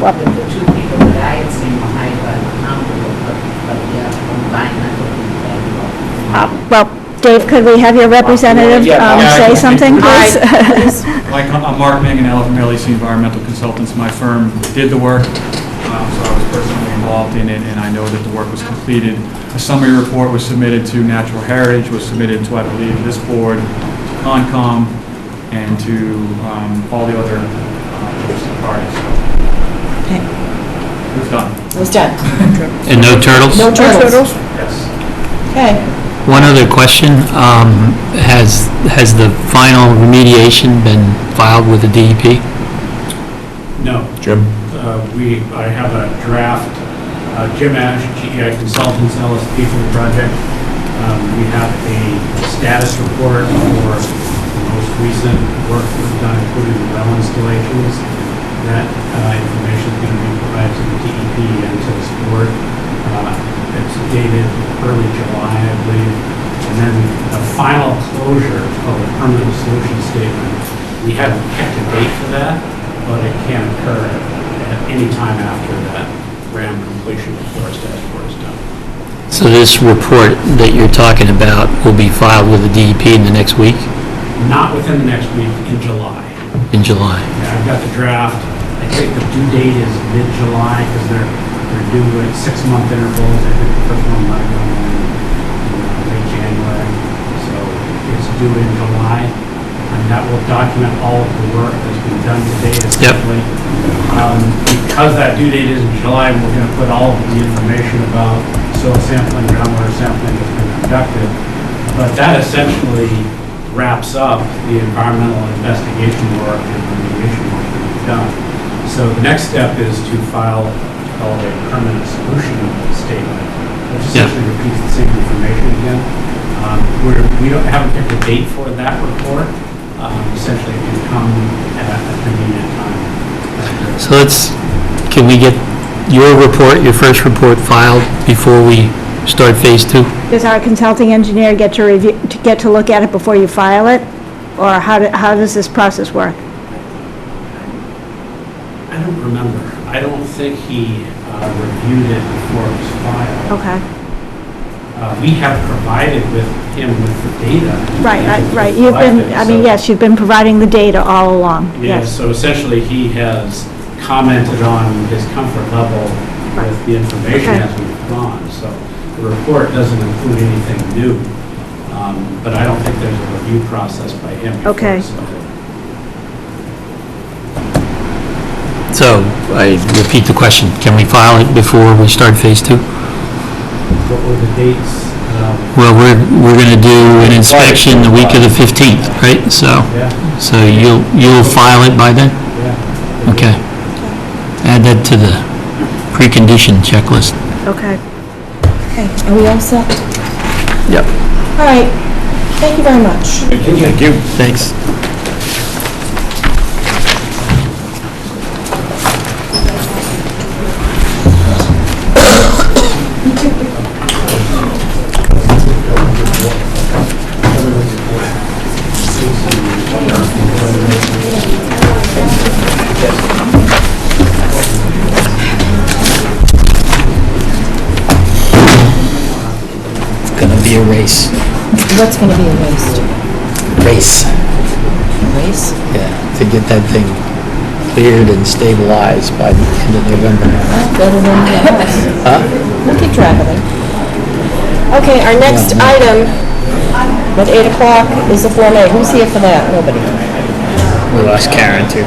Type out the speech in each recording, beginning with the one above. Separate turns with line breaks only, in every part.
Well-
The the two people that I had seen were hired by the county, but, but the other combined, I don't think they were.
Uh, Well, Dave, could we have your representative
Yeah,
um,
yeah, I
say
can-
something, please?
Like, I'm Mark Manganello from LEC Environmental Consultants. My firm did the work, um, so I was personally involved in it, and I know that the work was completed. A summary report was submitted to Natural Heritage, was submitted to, I believe, this board, to Concom, and to um, all the other um, interested parties. So
Okay,
It was done,
it was done.
And no turtles?
No turtles.
yes.
Okay.
One other question, um, has, has the final remediation been filed with the E DEP?
No.
Jim?
Uh, We, I have a draft, uh, Jim Ash,
E
GEI Consultants, LSP for the project. Um, We have a status report for the most recent work we've done, including the well installations. That uh, information is going to be provided to the DEP and to this board. Uh, It's dated early July, I believe. And then the final closure of the permanent solution statement, we haven't kept a date for that but it can occur at any time after that RAM completion of Forest Task Force is done.
So this report that you're talking about will be filed with the DEP in the next week,
Not within the next week, in July.
in July?
Yeah, I've got the draft. I think the due date is mid-July because they're, they're due at six-month intervals. I think the first one might go in in late January. So it's due in July. And that will document all of the work that's been done today essentially. Um, Because that due date is in July, we're going to put all of the information about soil sampling, groundwater sampling that's been conducted but that essentially wraps up the environmental investigation work and remediation work that we've done. So the next step is to file what's called a permanent solution statement, which
Yeah.
essentially repeats the same information again. Um, We're, we don't, haven't picked a date for that report. Um, Essentially, it can come at a convenient time.
So let's, can we get your report, your first report filed before we start phase two?
Does our consulting engineer get to review, to get to look at it before you file it? Or how, do- how does this process work?
I don't remember. I don't think he uh, reviewed it before it was filed.
Okay,
Uh, We have provided with him with the data.
right, right, right. You've been, I mean, yes, you've been providing the data all along,
Yeah,
yes.
so essentially, he has commented on his comfort level with the information
Okay.
as we've gone. So the report doesn't include anything new, um, but I don't think there's a review process by him. before
Okay.
it's submitted.
So I repeat the question, can we file it before we start phase two?
What were the dates? Um,
Well, we're, we're going to do an inspection the week of the 15th, right? So,
Yeah,
so you'll, you'll file it by then?
yeah. the
Okay. Add that to the precondition checklist.
Okay.
Okay, are we all set?
Yep.
All right, thank you very much.
Thank you.
Thanks. It's gonna be a race.
What's going to be erased?
Race.
Race?
Yeah, to get that thing cleared and stabilized by the end of November.
Better than that. Look at traveling. Okay, our next item at 8 o'clock is the Form A. Who's here for that? Nobody.
We lost Karen too.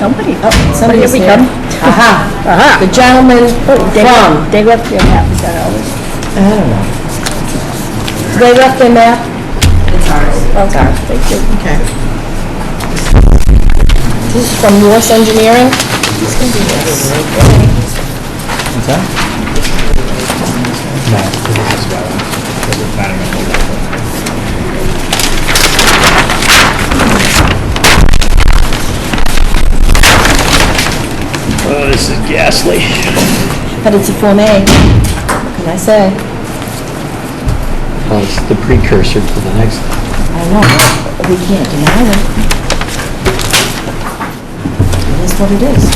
Nobody. Oh, somebody's here. Aha, aha. The gentleman from. They left their map, is that always? I don't know. They left their map? It's ours. Okay, thank you. Okay. This is from Morse Engineering?
What's that? No, it was just about, it was about a minute ago. Oh, this is ghastly.
But it's a Form A. What can I say?
Well, it's the precursor to the next.
I don't know. We can't deny it. It is what it is.